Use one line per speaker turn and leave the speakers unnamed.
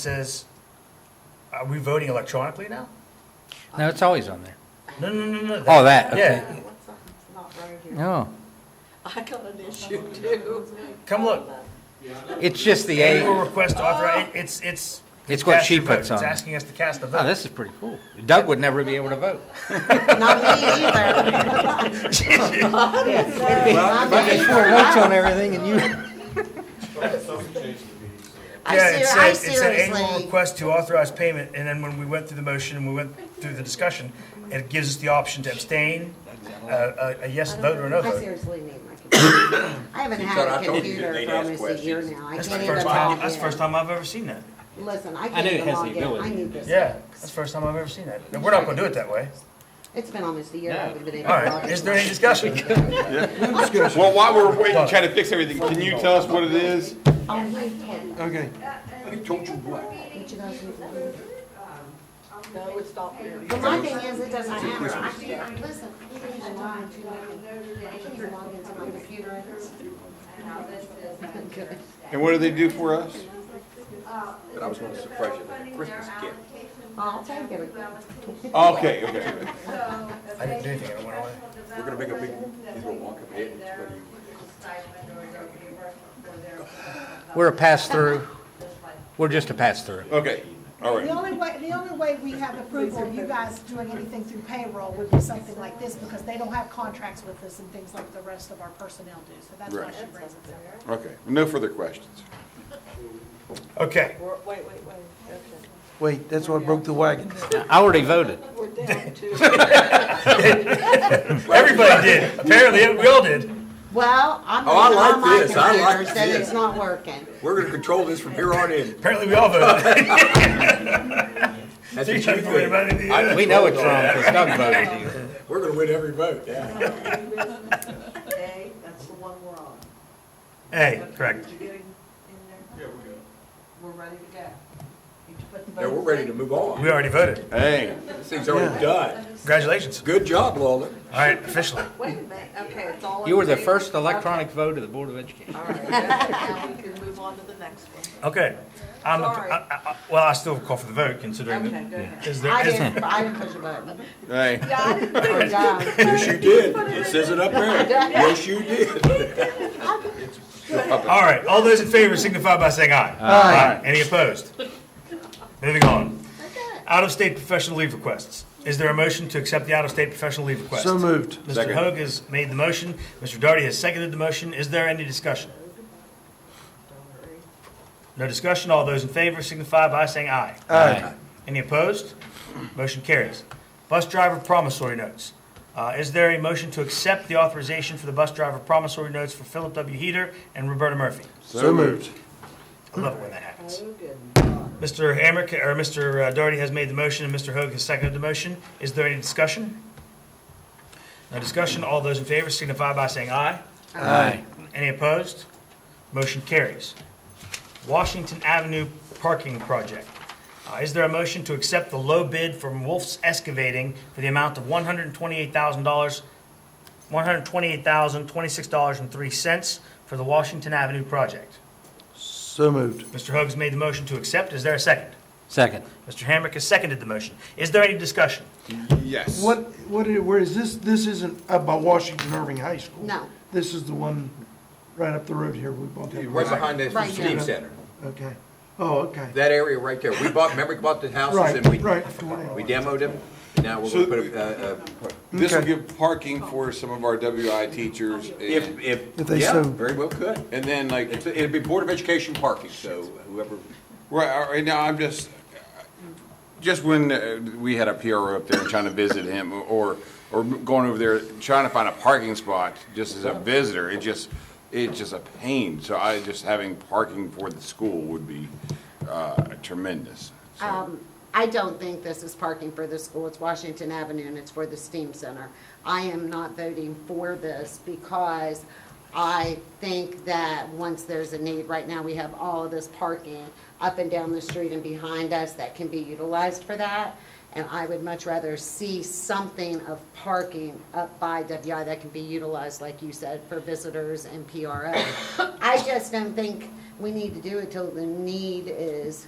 says, are we voting electronically now?
No, it's always on there.
No, no, no, no.
Oh, that,
Yeah,
okay.
What's up? It's not right here.
No,
I got an issue too.
come look.
it's just the
Annual
A.
request
Oh.
author, it's, it's.
It's what
cast
she
your vote.
puts on.
It's asking us to cast a
Oh,
vote.
this is pretty cool. Doug would never be able to vote.
Not me either.
But there's four votes on everything and you.
I
Yeah, it
ser-
said,
I
it said annual
seriously,
request to authorize payment, and then when we went through the motion and we went through the discussion, it gives us the option to abstain, uh, a, a yes vote or a no
I
vote.
seriously need my computer. I haven't had
thought
a
I told you
computer
they'd
for
ask
almost a year
questions.
now. I
That's
can't
the
even
first time,
log
that's the first
in.
time I've ever seen that.
Listen, I
knew
can't
it
even
has the
log in. I
ability.
need this.
Yeah, that's the first time I've ever seen that. And we're not gonna do it that way.
It's been almost a year. I haven't been able
All
to log
right,
in.
is there any discussion?
Well, while we're waiting, trying to fix everything, can you tell us what it is?
Oh, wait, Ted,
Okay.
what you guys need to do? But my thing is, it doesn't matter. I can't, listen, I can't even log into my, I can't even log into my computer. Okay.
And what do they do for us?
But I was gonna surprise you with a Christmas gift.
I'll take it.
Okay, okay.
I didn't do anything, I went away.
We're gonna make a big, he's gonna walk up ahead and it's gonna be-
We're a pass through. We're just a pass through.
Okay, all
The
right.
only way, the only way we have approval of you guys doing anything through payroll would be something like this, because they don't have contracts with us and things like the rest of our personnel do, so that's why
Right.
she brings it up.
Okay, no further questions.
Okay,
Wait, wait, wait.
Wait, that's what broke the wagon.
I already voted.
We're down to.
everybody did, apparently, we all did.
Well, I'm
Oh, I
looking on
like
my
this. I like
computer, so
this.
it's not working.
We're gonna control this from here on in.
Apparently, we all voted.
That's
So
what
you
you
don't have to worry
think.
about anything.
We know it's wrong because Doug voted.
We're gonna win every vote, yeah.
A, that's the one we're on.
Hey, correct.
you get in there? Yeah, we're good. We're ready to go. You put the
Now,
votes
we're ready
in.
to move on.
We already voted.
Hey,
This thing's already done.
Congratulations.
Good job, Lola.
All right, officially.
Wait a minute, okay, it's all. in
You were the
favor?
first electronic vote of the Board of Education.
All right, now we can move on to the next one.
Okay. I'm,
Sorry.
I- I- I- well, I still call for the vote considering
Okay,
that.
go ahead.
Is
I
there, is,
didn't, I didn't push a button.
hey.
We're done.
Yes, you did. It says it up there. Yes, you did.
all right, all those in favor signify by saying aye. Aye. Any opposed? Moving on. Out-of-state professional leave requests. Is there a motion to accept the out-of-state professional leave request?
So moved.
Mr.
Second.
Hoag has made the motion. Mr. Darty has seconded the motion. Is there any discussion? No discussion. All those in favor signify by saying aye.
Aye.
Any opposed? Motion carries. Bus driver promissory notes. Uh, Is there a motion to accept the authorization for the bus driver promissory notes for Philip W. Heater and Roberta Murphy?
So moved.
I love it when that happens. Mr. Hamrick, or Mr. Doherty has made the motion, and Mr. Hoag has seconded the motion. Is there any discussion? No discussion. All those in favor signify by saying aye.
Aye.
Any opposed? Motion carries. Washington Avenue Parking Project. Uh, Is there a motion to accept the low bid from Wolf's Excavating for the amount of $128,000, $128,026.03 for the Washington Avenue project?
So moved.
Mr. Hoag's made the motion to accept. Is there a second?
Second.
Mr. Hamrick has seconded the motion. Is there any discussion?
Yes.
What, what, i- where is this, this isn't up by Washington Irving High School?
No.
This is the one right up the road here we bought that.
Right behind the
Right
Steam
now.
Center.
Okay. Oh, okay.
That area right there. We bought, remember we bought the houses
Right,
and we,
right.
we demoed them? Now we're gonna put, a- uh, uh,
This will
Okay.
give parking for some of our WI teachers
if,
and,
If
if,
they
yeah,
so-
very well could.
and then like,
It's, it'd be Board of Education parking, so whoever,
right, all right now I'm just, just when uh, we had a PRO up there trying to visit him or, or going over there, trying to find a parking spot just as a visitor, it just, it's just a pain. So I just having parking for the school would be uh, tremendous. So-
Um, I don't think this is parking for the school. It's Washington Avenue and it's for the STEAM Center. I am not voting for this because I think that once there's a need, right now we have all of this parking up and down the street and behind us that can be utilized for that. And I would much rather see something of parking up by WI that can be utilized, like you said, for visitors and PRO. I just don't think we need to do it till the need is